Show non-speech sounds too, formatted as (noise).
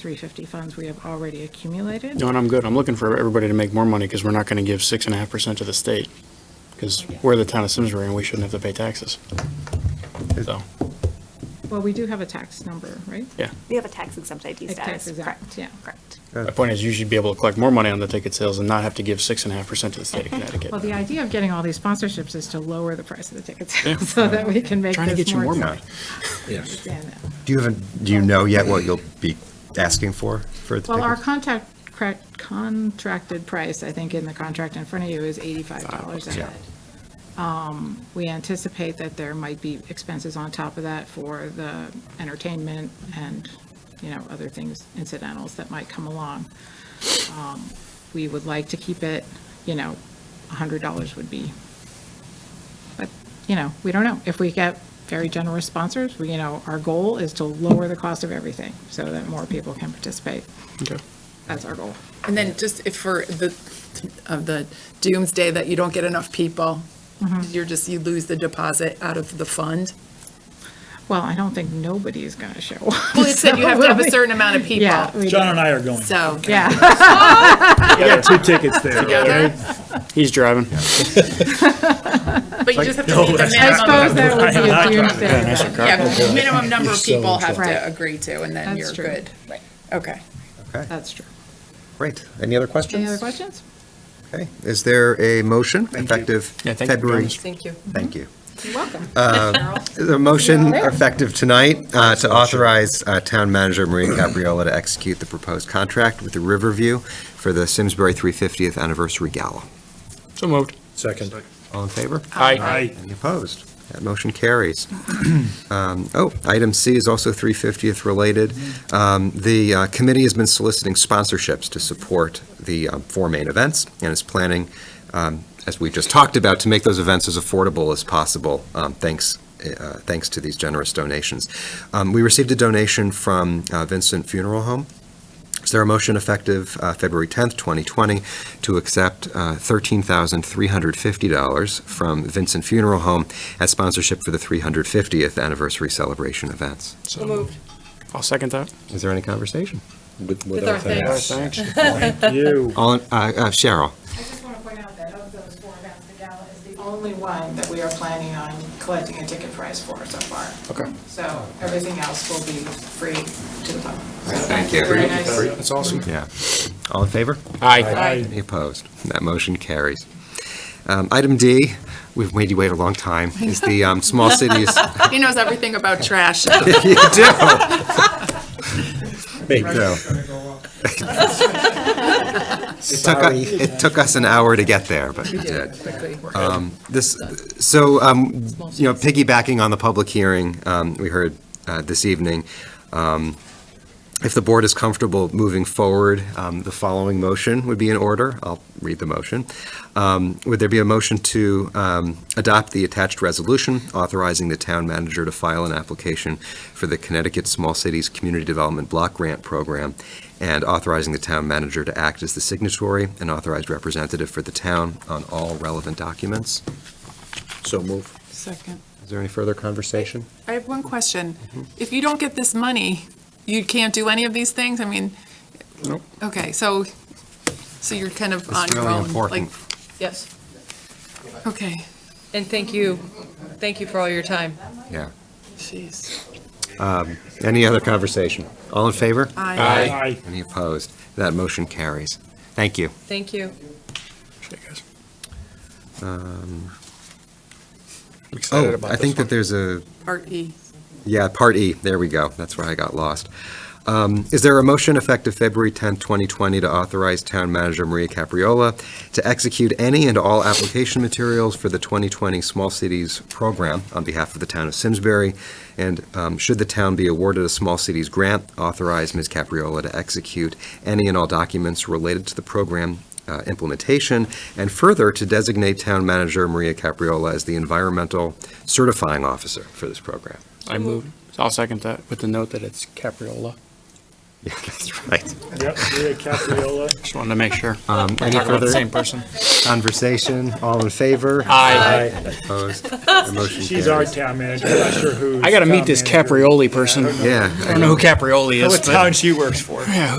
350 funds we have already accumulated. No, and I'm good. I'm looking for everybody to make more money because we're not going to give six and a half percent to the state. Because we're the town of Simsbury and we shouldn't have to pay taxes. So, Well, we do have a tax number, right? yeah. We have a tax exempt ID A tax status, exempt, correct? yeah. Correct. My point is you should be able to collect more money on the ticket sales and not have to give six and a half percent to the state of Connecticut. Well, the idea of getting all these sponsorships is to lower the price of the tickets (laughs) so that we can make Trying to this get you more more exciting. money. (laughs) Yes. Yeah, no. Do you have, a- do you know yet what you'll be asking for, for the Well, our tickets? contact, cra- contracted price, I think in the contract in front of you, is $85 a Yeah. head. Um, We anticipate that there might be expenses on top of that for the entertainment and, you know, other things, incidentals that might come along. Um, We would like to keep it, you know, $100 would be, but, you know, we don't know. If we get very generous sponsors, we, you know, our goal is to lower the cost of everything so that more people can participate. Okay. That's our goal. And then just if for the, of the doomsday that you don't get enough people, Mm-hmm. you're just, you lose the deposit out of (laughs) the fund. Well, I don't think nobody is going to show up. Well, it said you have to have a (laughs) certain amount of Yeah. people, we John do. and I are going. so. Yeah. We got two tickets there. He's driving. But you just have to meet the I suppose minimum, that (laughs) would be I a am not doomsday. event. yeah, (laughs) minimum number of people have Right. to agree to, and then That's you're true. good. Right. Okay. Okay, That's true. great. Any other questions? uh, Any other questions? Okay, is there a motion effective Yeah, thank you for February? doing this. Thank you. Thank you. You're welcome. Is there a motion Yeah. effective tonight uh, to authorize uh, Town Manager Maria Capriola to execute the proposed contract with the Riverview for the Simsbury 350th Anniversary Gala? So moved. Second. All in favor? Aye. Any opposed? That motion carries. (clears throat) Um, Oh, item C is also 350th related. Um, The uh, committee has been soliciting sponsorships to support the um, four main events and is planning, um, as we just talked about, to make those events as affordable as possible, um, thanks, uh, thanks to these generous donations. Um, We received a donation from uh, Vincent Funeral Home. Is there a motion effective uh, February 10th, 2020, to accept uh, $13,350 from Vincent Funeral Home as sponsorship for the 350th anniversary celebration events? So moved. I'll second that. Is there any conversation? With our thanks. Thanks. You. Oh. All, in- uh, uh, Cheryl? I just want to point out that of those four events, the gala is the only one that we are planning on collecting a ticket price for so far. Okay. So everything else will be free to the public. Thank you. Very nice. That's awesome. Yeah. All in favor? Aye. Any opposed? That motion carries. Um, Item D, we've made you wait a long time, is the um, small cities. He knows everything about trash. (laughs) You do. Big deal. It took, u- it took us an hour to get there, but we did. Um, This, so, um, you know, piggybacking on the public hearing um, we heard uh, this evening, um, if the board is comfortable moving forward, um, the following motion would be in order. I'll read the motion. Um, Would there be a motion to um, adopt the attached resolution authorizing the town manager to file an application for the Connecticut Small Cities Community Development Block Grant Program and authorizing the town manager to act as the signatory and authorized representative for the town on all relevant documents? So move. Second. Is there any further conversation? I have one question. Mm-hmm. If you don't get this money, you can't do any of these things? I mean, Nope. okay, so, so you're kind of on It's your really own. important. like- Yes, Okay, and thank you, thank you for all your time. Yeah. jeez. Any other conversation? All in favor? Aye. Aye. Any opposed? That motion carries. Thank you. Thank you. Um, I'm excited Oh, about I this think one. that there's a, Part E. yeah, Part E, there we go, that's where I got lost. Um, Is there a motion effective February 10th, 2020, to authorize Town Manager Maria Capriola to execute any and all application materials for the 2020 Small Cities Program on behalf of the town of Simsbury? And um, should the town be awarded a Small Cities grant, authorize Ms. Capriola to execute any and all documents related to the program uh, implementation, and further, to designate Town Manager Maria Capriola as the environmental certifying officer for this program? I moved. I'll second that with the note that it's Capriola. (laughs) Yeah, that's right. Yep, Maria Capriola. Just wanted to make sure. Um, Any Talking about the further same person. conversation? All in favor? Aye. (laughs) Opposed? The motion She's our carries. town manager, I'm not sure who. I gotta meet this Caprioli person. Yeah. I don't know who Caprioli is, but. she works for. Yeah,